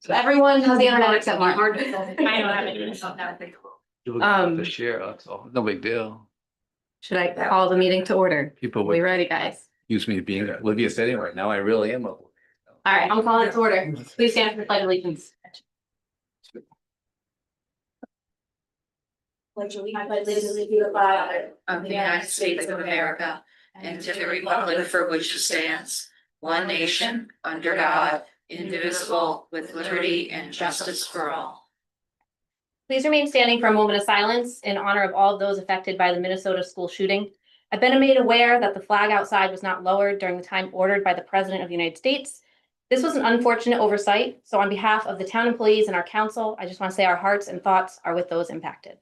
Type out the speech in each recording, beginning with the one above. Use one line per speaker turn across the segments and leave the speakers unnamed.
So everyone has the internet except Mark.
I don't have it, so that would be cool.
You look at The
Um,
share, that's all, no big deal.
Should I call the meeting to order?
People
We
would
ready, guys?
use me being oblivious anyway, now I really am. oblivious.
All right, I'm calling it to order. Please stand for the pledge of allegiance.
I pledge allegiance to the flag of the United States of America and to the republic for which it stands, one nation, under God, indivisible, with liberty and justice for all.
Please remain standing for a moment of silence in honor of all of those affected by the Minnesota school shooting. I've been made aware that the flag outside was not lowered during the time ordered by the President of the United States. This was an unfortunate oversight, so on behalf of the town employees and our council, I just want to say our hearts and thoughts are with those impacted.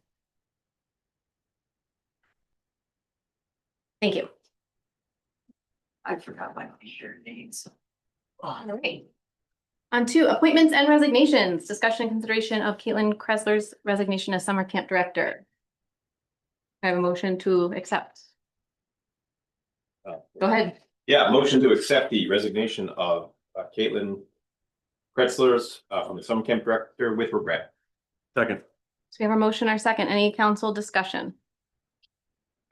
Thank you.
I forgot my your names.
All right. On to appointments and resignations, discussion and consideration of Caitlin Kressler's resignation as summer camp director. I have a motion to accept.
Oh.
Go ahead.
Yeah, motion to accept the resignation of uh, Caitlin Kretzler's uh, from the summer camp director with regret. Second.
So we have our motion, our second, any council discussion?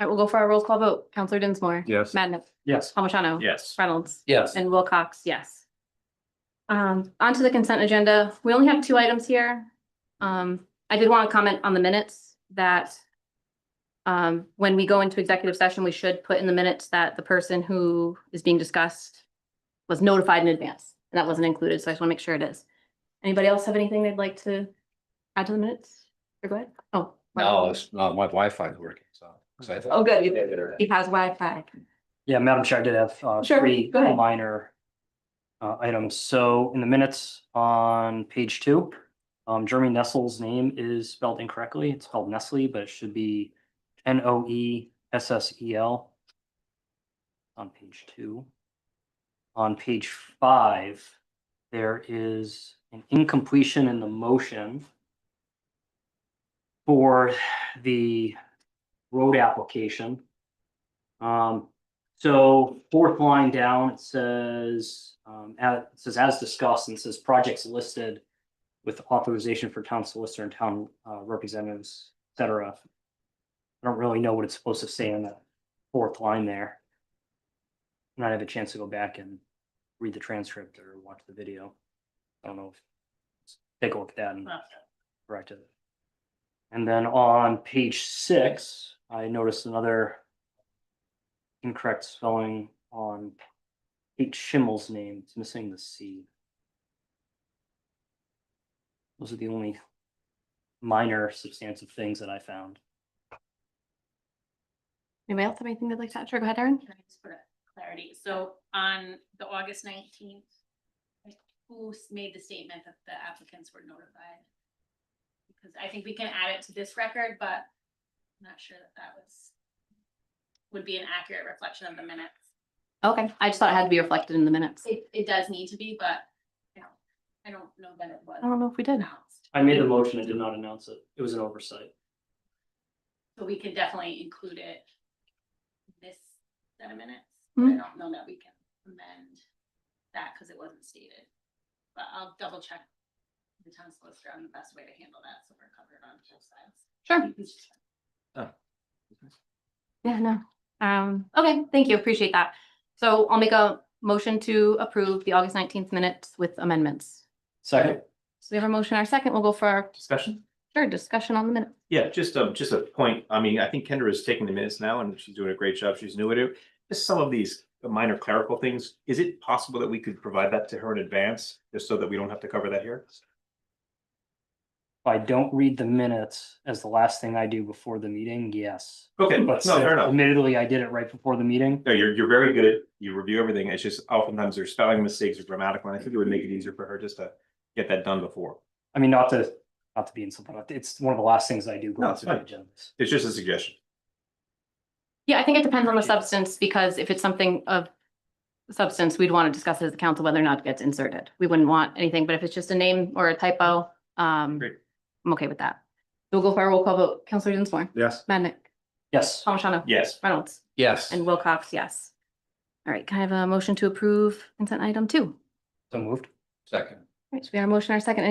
All right, we'll go for our roll call vote. Counselor Dinsmore.
Yes.
Madden.
Yes.
Palmigano.
Yes.
Reynolds.
Yes.
And Wilcox, yes. Um, onto the consent agenda. We only have two items here. Um, I did want to comment on the minutes that um, when we go into executive session, we should put in the minutes that the person who is being discussed was notified in advance. And that wasn't included, so I just want to make sure it is. Anybody else have anything they'd like to add to the minutes? Or go ahead? Oh.
No, it's, no, my Wi-Fi is working, so. excited.
Oh, good. You- He has Wi-Fi.
Yeah, Madam Chair, I did have uh,
Sure,
three
go ahead.
minor uh, items. So in the minutes on page two, um, Jeremy Nestle's name is spelled incorrectly. It's spelled Nestle, but it should be N O E S S E L on page two. On page five, there is an incompletion in the motion for the road application. Um, so fourth line down, it says, um, as, it says as discussed, and it says projects listed with authorization for town solicitor and town uh, representatives, et cetera. I don't really know what it's supposed to say in that fourth line there. And I have a chance to go back and read the transcript or watch the video. I don't know. if Take a look at that and correct it. And then on page six, I noticed another incorrect spelling on Kate Schimmel's name. It's missing the C. Those are the only minor substantive things that I found.
Anybody else have anything they'd like to add? Sure, go ahead, Erin.
Can I just for clarity, so on the August nineteenth, who s- made the statement that the applicants were notified? Because I think we can add it to this record, but I'm not sure that that was, would be an accurate reflection of the minutes.
Okay, I just thought it had to be reflected in the minutes.
It, it does need to be, but, you know, I don't know that it
I
was
don't know if we did.
announced.
I made the motion. I did not announce it. It was an oversight.
So we can definitely include it in this set of minutes. but I don't know that we can amend that because it wasn't stated. But I'll double check the town solicitor on the best way to handle that, so we're covered on both sides.
Sure. Yeah, no. Um, okay, thank you. Appreciate that. So I'll make a motion to approve the August nineteenth minutes with amendments.
Second.
So we have a motion, our second, we'll go for our,
Discussion?
sure, discussion on the minute.
Yeah, just a, just a point. I mean, I think Kendra is taking the minutes now and she's doing a great job. She's new at it. Just some of these minor clerical things. Is it possible that we could provide that to her in advance, just so that we don't have to cover that here?
If I don't read the minutes as the last thing I do before the meeting, yes.
Okay, no,
But
fair enough.
admittedly, I did it right before the meeting.
No, you're, you're very good. You review everything. It's just oftentimes there's spelling mistakes or grammatical, and I think it would make it easier for her just to get that done before.
I mean, not to, not to be insulting, but it's one of the last things I do.
No, it's
before the
fine.
agendas.
It's just a suggestion.
Yeah, I think it depends on the
Yes.
substance, because if it's something of substance, we'd want to discuss it as a council whether or not it gets inserted. We wouldn't want anything, but if it's just a name or a typo, um,
Great.
I'm okay with that. We'll go for our roll call vote. Counselor Dinsmore,
Yes.
Madnick,
Yes.
Palmigano,
Yes,
Reynolds,
Yes.
and Wilcox, yes. All right, can I have a motion to approve consent item two?
So moved.
Second.
Right, so we got a motion, our second. Any